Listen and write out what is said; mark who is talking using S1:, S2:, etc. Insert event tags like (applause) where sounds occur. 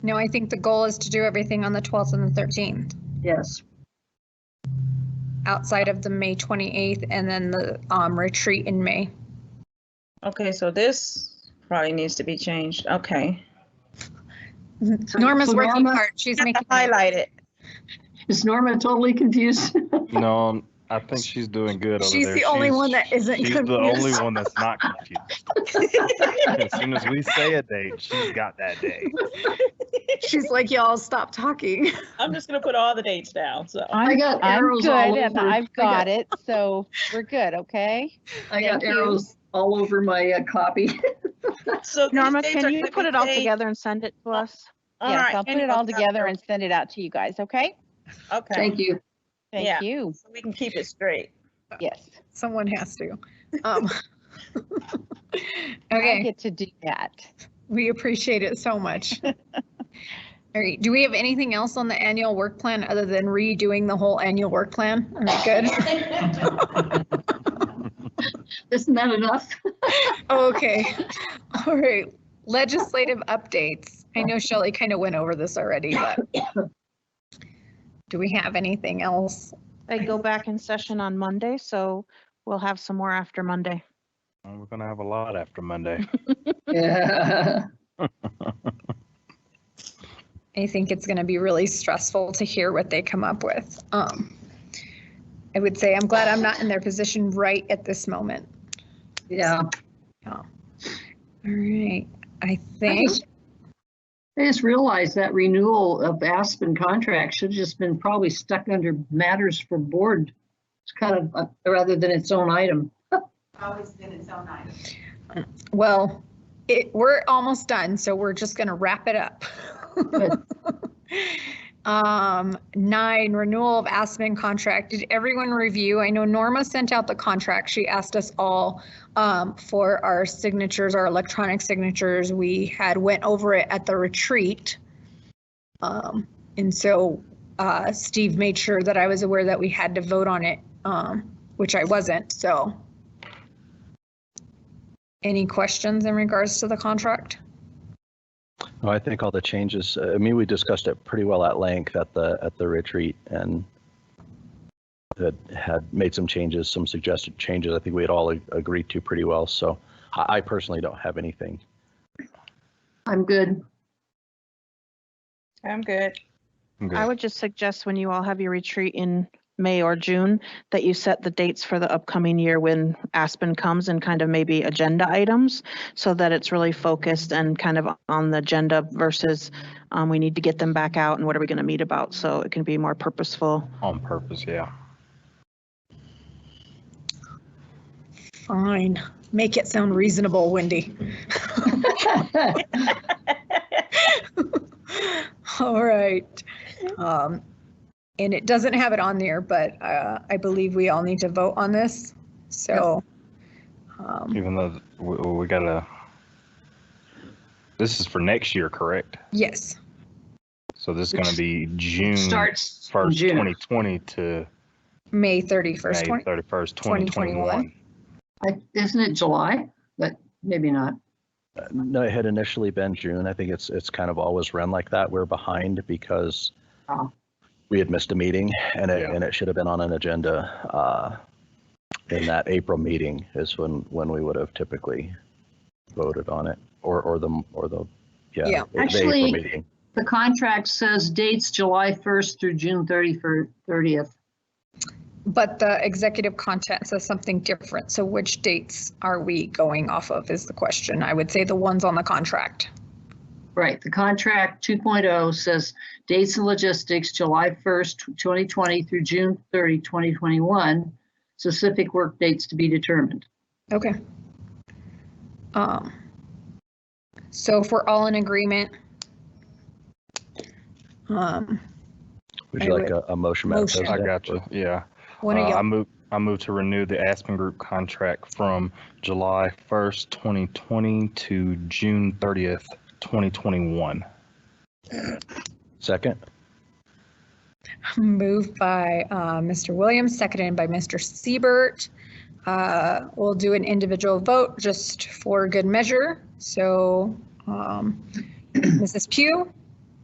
S1: No, I think the goal is to do everything on the 12th and the 13th,
S2: Yes,
S1: outside of the May 28th and then the um, retreat in May. (laughs)
S3: Okay, so this probably needs to be changed. Okay.
S2: So-
S1: Norma's
S2: so
S1: working
S2: Norma-
S1: hard. She's making.
S3: Highlight it.
S2: is Norma totally confused? (laughs)
S4: No, I'm- um, I think she's doing good over
S1: She's
S4: there.
S1: the only one that (laughs) isn't
S4: She's
S1: confused.
S4: the only one that's not confused. as soon as we say a date, she's got that day.
S1: (laughs) She's like, y'all stop talking.
S3: (laughs) I'm just gonna put all the dates down, so.
S2: I
S5: I'm,
S2: got
S5: I'm
S2: arrows
S5: good
S2: all
S5: and
S2: over. I
S5: I've
S2: got-
S5: got it, so we're good, okay?
S2: I got
S5: Thank you.
S2: arrows all over my uh, copy.
S3: So these
S5: Norma,
S3: dates are
S5: can you
S3: gonna
S5: put
S3: be
S5: it all
S3: dates-
S5: together and send it to us?
S3: All
S5: Yes,
S3: right,
S5: I'll put
S3: end
S5: it all
S3: of
S5: together
S3: October.
S5: and send it out to you guys, okay?
S2: (laughs)
S3: Okay,
S2: Thank you.
S3: Yeah.
S5: Thank you,
S3: so we can keep it straight.
S5: yes.
S1: (laughs) Someone has to. (laughs) Um,
S5: I
S1: Okay,
S5: get to do that.
S1: we appreciate it so much. (laughs) All right, do we have anything else on the annual work plan other than redoing the whole annual work plan? Am I good?
S2: Isn't that enough?
S1: Okay, (laughs) all right. Legislative updates. I know Shelley kind of went over this already, but do we have anything else?
S5: They go back in session on Monday, so we'll have some more after Monday.
S4: And We're gonna have a lot after Monday.
S2: (laughs) Yeah.
S1: I think it's going to be really stressful to hear what they come up with. Um, I would say I'm glad I'm not in their position right at this moment.
S2: Yeah.
S1: All right, I
S2: I
S1: think,
S2: just- I just realized that renewal of Aspen contract should have just been probably stuck under matters for board. It's kind of, uh, rather than its own item.
S6: always been its own item.
S1: well, it, we're almost done, so we're just going to wrap it up. (laughs)
S2: (laughs) Good.
S1: Um, nine, renewal of Aspen contract. Did everyone review? I know Norma sent out the contract. She asked us all um, for our signatures, our electronic signatures. We had went over it at the retreat. Um, and so uh, Steve made sure that I was aware that we had to vote on it, um, which I wasn't, so. Any questions in regards to the contract?
S7: No, Oh, I think all the changes, uh, I mean, we discussed it pretty well at length at the, at the retreat and that had made some changes, some suggested changes I think we had all a- agreed to pretty well. So I, I personally don't have anything.
S2: I'm good.
S3: I'm good.
S4: I'm good.
S5: I would just suggest when you all have your retreat in May or June, that you set the dates for the upcoming year when Aspen comes and kind of maybe agenda items so that it's really focused and kind of on the agenda versus um, we need to get them back out and what are we going to meet about? So it can be more purposeful.
S4: On purpose, yeah.
S1: Fine, make it sound reasonable, Wendy.
S4: Hmm.
S1: (laughs) All right. Um, And it doesn't have it on there, but uh, I believe we all need to vote on this, so. um,
S4: Even though we, we gotta. This is for next year, correct?
S1: Yes,
S4: So this is gonna be June
S2: Starts in
S4: first,
S2: June.
S4: twenty twenty to
S1: May
S4: May
S1: 31st. 20
S4: thirty-first, twenty twenty-one.
S2: I- Isn't it July? But maybe not.
S7: Uh, No, it had initially been June. I think it's, it's kind of always run like that. We're behind because
S1: Uh-huh.
S2: Oh.
S7: we had missed a meeting and it,
S4: Yeah.
S7: and it should have been on an agenda uh, in that April meeting is when, when we would have typically voted on it or, or the, or the,
S1: Yeah.
S7: yeah. the April
S2: Actually,
S7: meeting.
S2: The contract says dates July 1st through June 31st, 30th.
S1: But the executive content says something different, so which dates are we going off of is the question. I would say the ones on the contract.
S2: Right, the contract 2.0 says dates and logistics, July 1st, 2020 through June 30, 2021. Specific work dates to be determined.
S1: Okay. Um, So if we're all in agreement. um,
S7: Would
S1: I
S7: you like
S1: would-
S7: a, a motion, Madam
S1: Motion.
S4: I
S7: President?
S4: gotcha, yeah.
S1: One of
S4: Uh, I
S1: y'all,
S4: move, I move to renew the Aspen Group contract from July 1st, 2020 to June 30th, 2021.
S7: Second?
S1: moved by uh, Mr. Williams, seconded by Mr. Siebert. Uh, We'll do an individual (clears throat) vote just for good measure. So um, Mrs. Pugh,